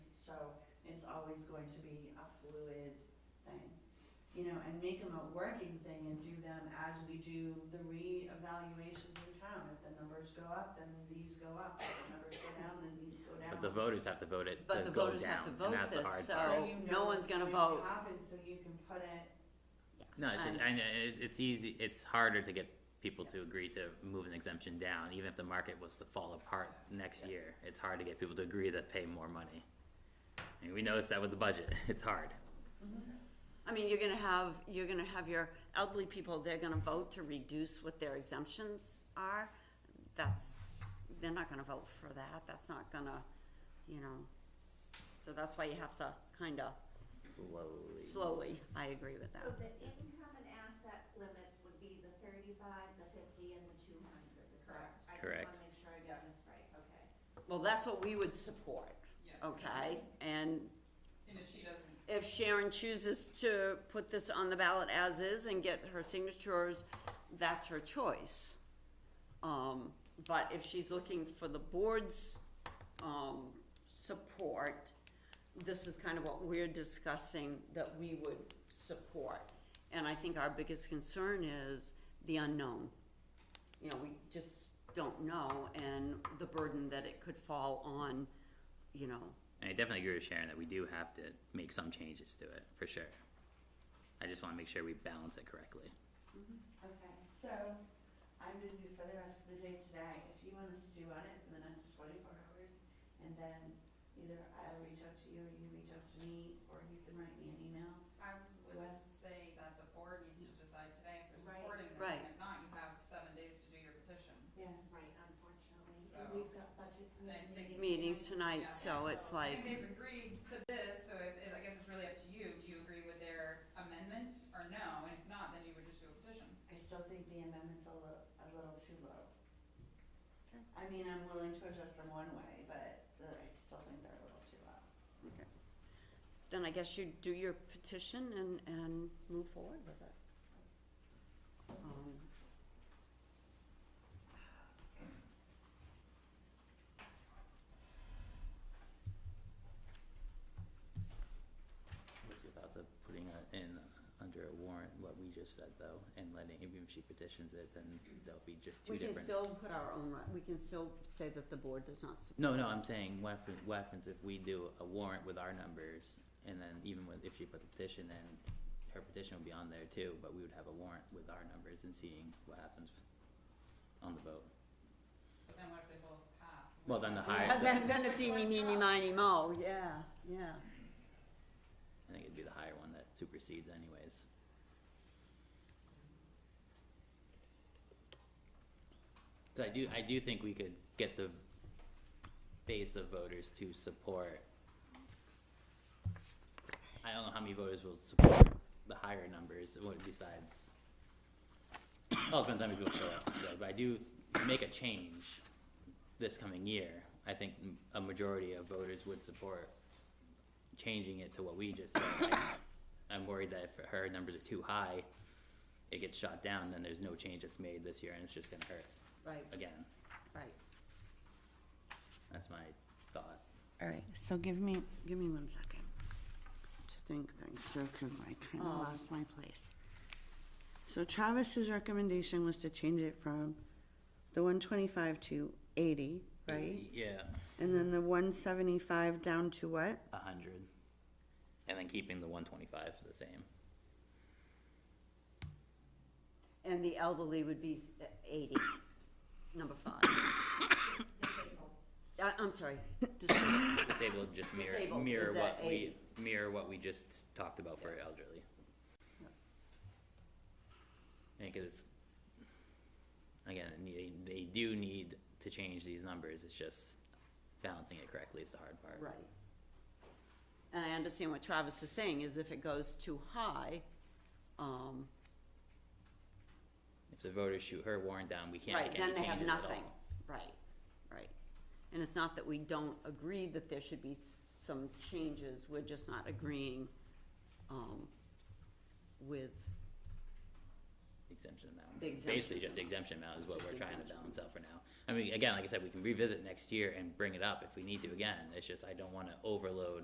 always going to be a fluid thing. You know, and make them a working thing and do them as we do the reevaluations in town. If the numbers go up, then these go up. If the numbers go down, then these go down. But the voters have to vote it But to the go voters down, have to and vote that's the this, hard so- part. So you no know one's gonna it's vote. Happen, so you can put it, No, it's just, and And- it's, it's easy, it's harder to get people to agree to move an exemption down, even if the market was to fall apart next year. It's hard to get people to agree to pay more money. And we noticed that with the budget, it's hard. I mean, you're gonna have, you're gonna have your elderly people, they're gonna vote to reduce what their exemptions are. That's, they're not gonna vote for that, that's not gonna, you know, so that's why you have to kinda Slowly. slowly, I agree with So that. the income and asset limits would be the thirty-five, the fifty, and the two hundred, is that? I Correct. just wanna make sure I got this right, okay. Well, that's what we would support, Yeah, okay? And and if she doesn't, if Sharon chooses to put this on the ballot as is and get her signatures, that's her choice. Um, but if she's looking for the board's, um, support, this is kind of what we're discussing that we would support. And I think our biggest concern is the unknown. You know, we just don't know and the burden that it could fall on, you know, And I definitely agree with Sharon that we do have to make some changes to it, for sure. I just wanna make sure we balance it correctly. okay, so I'm busy for the rest of the day today. If you wanna stew on it for the next twenty-four hours, and then either I'll reach out to you, or you reach out to me, or you can write me an email. I would What? say that the board needs to decide today if they're Right. supporting this, Right. and if not, you have seven days to do your petition. Yeah. Right, unfortunately, So- we've got budget I committee think- meetings tonight, so it's like. And they've agreed to this, so if, I guess it's really up to you, do you agree with their amendment or no, and if not, then you would just do a petition. I still think the amendment's a little, a little too low. I mean, I'm willing to adjust them one way, but uh, I still think they're a little too low. Then I guess you do your petition and, and move forward with it. Um, What's your thoughts of putting it in under a warrant, what we just said though, and letting, even if she petitions it, then there'll be just two We different. can still put our own, re- we can still say that the board does not support. No, no, I'm saying what if, what happens if we do a warrant with our numbers and then even with, if she put the petition in, her petition would be on there too, but we would have a warrant with our numbers and seeing what happens on the vote. But then what if they both pass? Well, then the higher, And the- Then, then it's eeny, meeny, miny, mo, yeah, yeah. I think it'd be the higher one that supersedes anyways. So I do, I do think we could get the base of voters to support. I don't know how many voters will support the higher numbers, what besides. Well, it depends how many people show up, so, but I do make a change this coming year. I think m- a majority of voters would support changing it to what we just said. like, I'm worried that if her numbers are too high, it gets shot down, then there's no change that's made this year, and it's just gonna hurt Right, again. right. That's my thought. All right, so give me, give me one second to think things, so, cause I kinda Um. lost my place. So Travis's recommendation was to change it from the one twenty-five to eighty, right? Yeah, And then the one seventy-five down to what? a hundred. And then keeping the one twenty-five the same. And the elderly would be s- uh, eighty, number five. disabled. I, I'm sorry, dis- Disabled just mirror, Disabled mirror is at what we, mirror what we just talked about for elderly. Yeah. And 'cause it's, again, it need- they, they do need to change these numbers, it's just balancing it correctly is the hard part. Right. And I understand what Travis is saying, is if it goes too high, um, If the voters shoot her warrant down, we can't Right, make any then they changes at all. have nothing, right, right. And it's not that we don't agree that there should be s- some changes, we're just not agreeing, um, with, Exemption amount. The Basically, exemption just the amount. exemption amount is what Just we're trying to exemption. balance out for now. I mean, again, like I said, we can revisit next year and bring it up if we need to again, it's just I don't wanna overload